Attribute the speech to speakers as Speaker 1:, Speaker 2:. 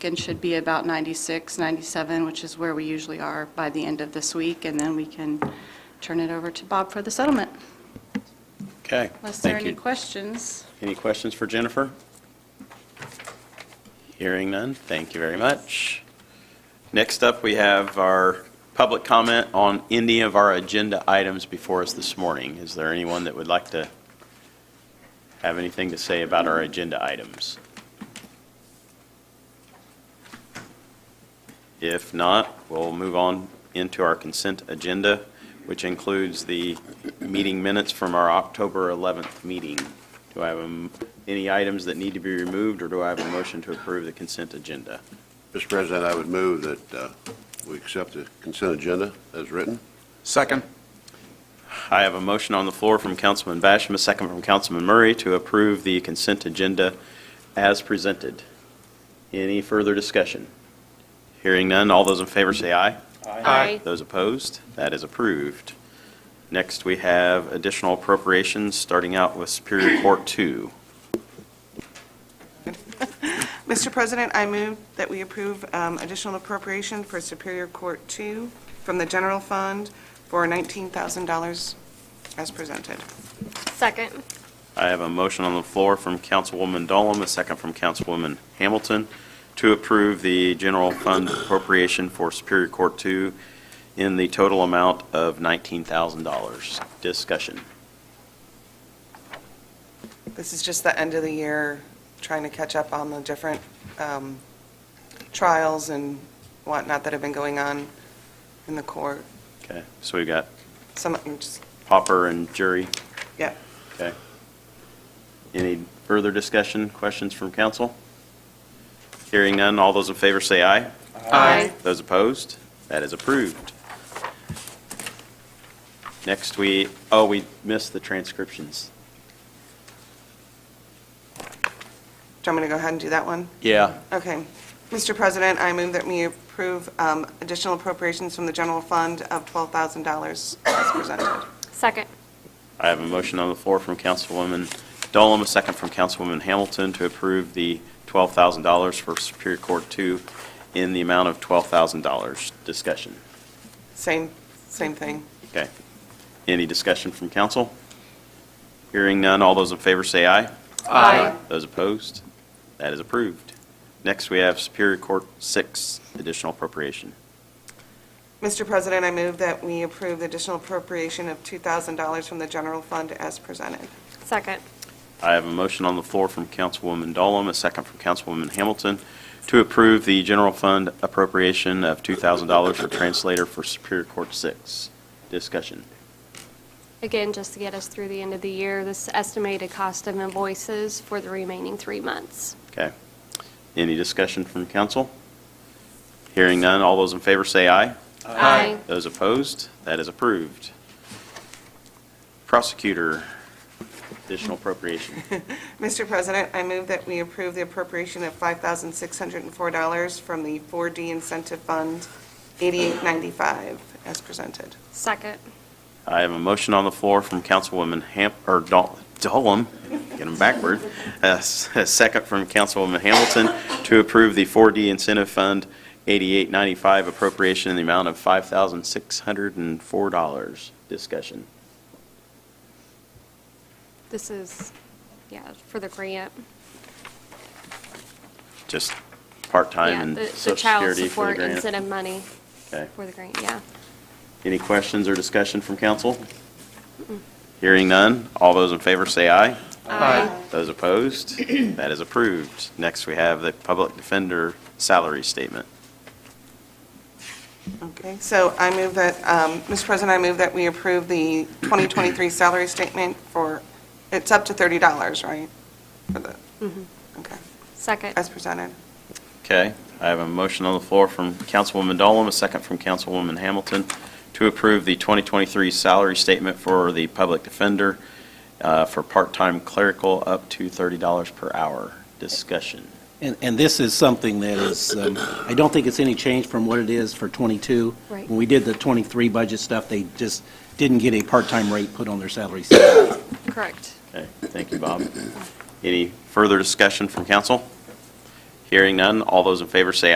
Speaker 1: and should be about 96, 97, which is where we usually are by the end of this week, and then we can turn it over to Bob for the settlement.
Speaker 2: Okay,
Speaker 1: Unless there are
Speaker 2: thank
Speaker 1: any
Speaker 2: you.
Speaker 1: questions.
Speaker 2: Any questions for Jennifer? Hearing none, thank you very much. Next up, we have our public comment on any of our agenda items before us this morning. Is there anyone that would like to have anything to say about our agenda items? If not, we'll move on into our consent agenda, which includes the meeting minutes from our October 11th meeting. Do I have a m- any items that need to be removed, or do I have a motion to approve the consent agenda?
Speaker 3: Mr. President, I would move that uh, we accept the consent agenda as written.
Speaker 4: Second.
Speaker 2: I have a motion on the floor from Councilman Basham, a second from Councilman Murray, to approve the consent agenda as presented. Any further discussion? Hearing none, all those in favor say aye.
Speaker 4: Aye.
Speaker 2: Those opposed, that is approved. Next, we have additional appropriations, starting out with Superior Court 2.
Speaker 5: Mr. President, I move that we approve um, additional appropriation for Superior Court 2 from the general fund for $19,000 as presented.
Speaker 6: Second.
Speaker 2: I have a motion on the floor from Councilwoman Dolam, a second from Councilwoman Hamilton, to approve the general fund appropriation for Superior Court Two in the total amount of $19,000. Discussion.
Speaker 5: This is just the end of the year, trying to catch up on the different um, trials and whatnot that have been going on in the court.
Speaker 2: Okay, so we've got
Speaker 5: Some, I'm just-
Speaker 2: Popper and Jury.
Speaker 5: yeah.
Speaker 2: Okay. Any further discussion, questions from council? Hearing none, all those in favor say aye.
Speaker 6: Aye.
Speaker 2: Those opposed? That is approved. Next, we, oh, we missed the transcriptions.
Speaker 5: Do you want me to go ahead and do that one?
Speaker 2: Yeah.
Speaker 5: Okay. Mr. President, I move that we approve um, additional appropriations from the general fund of $12,000 as presented.
Speaker 6: Second.
Speaker 2: I have a motion on the floor from Councilwoman Dolam, a second from Councilwoman Hamilton to approve the $12,000 for Superior Court 2 in the amount of $12,000. Discussion.
Speaker 5: Same, same thing.
Speaker 2: Okay. Any discussion from council? Hearing none, all those in favor say aye.
Speaker 6: Aye.
Speaker 2: Those opposed? That is approved. Next, we have Superior Court 6, additional appropriation.
Speaker 5: Mr. President, I move that we approve the additional appropriation of $2,000 from the general fund as presented.
Speaker 6: Second.
Speaker 2: I have a motion on the floor from Councilwoman Dolam, a second from Councilwoman Hamilton, to approve the general fund appropriation of $2,000 for translator for Superior Court 6. Discussion.
Speaker 6: Again, just to get us through the end of the year, this estimated cost of invoices for the remaining three months.
Speaker 2: Okay. Any discussion from council? Hearing none, all those in favor say aye.
Speaker 6: Aye.
Speaker 2: Those opposed, that is approved. Prosecutor, additional appropriation.
Speaker 5: Mr. President, I move that we approve the appropriation of $5,604 from the 4D Incentive Fund 8895 as presented.
Speaker 6: Second.
Speaker 2: I have a motion on the floor from Councilwoman Ham, or Dol- Dolam, get them backward, a s- a second from Councilwoman Hamilton to approve the 4D Incentive Fund 8895 appropriation in the amount of $5,604. Discussion.
Speaker 6: This is, yeah, for the grant.
Speaker 2: Just part-time
Speaker 6: Yeah,
Speaker 2: and
Speaker 6: the-
Speaker 2: social security for the
Speaker 6: The child support
Speaker 2: grant.
Speaker 6: incentive money
Speaker 2: Okay.
Speaker 6: for the grant, yeah.
Speaker 2: Any questions or discussion from council?
Speaker 6: Mm.
Speaker 2: Hearing none, all those in favor say aye.
Speaker 6: Aye.
Speaker 2: Those opposed, that is approved. Next, we have the public defender salary statement.
Speaker 5: Okay, so I move that, um, Mr. President, I move that we approve the 2023 salary statement for, it's up to $30, right? For the, okay,
Speaker 6: Second.
Speaker 5: as presented.
Speaker 2: Okay, I have a motion on the floor from Councilwoman Dolam, a second from Councilwoman Hamilton, to approve the 2023 salary statement for the public defender uh, for part-time clerical up to $30 per hour. Discussion.
Speaker 7: And, and this is something that is, um, I don't think it's any change from what it is for '22.
Speaker 6: Right.
Speaker 7: When we did the '23 budget stuff, they just didn't get a part-time rate put on their salary. scale.
Speaker 6: Correct.
Speaker 2: Okay, thank you, Bob. Any further discussion from council? Hearing none, all those in favor say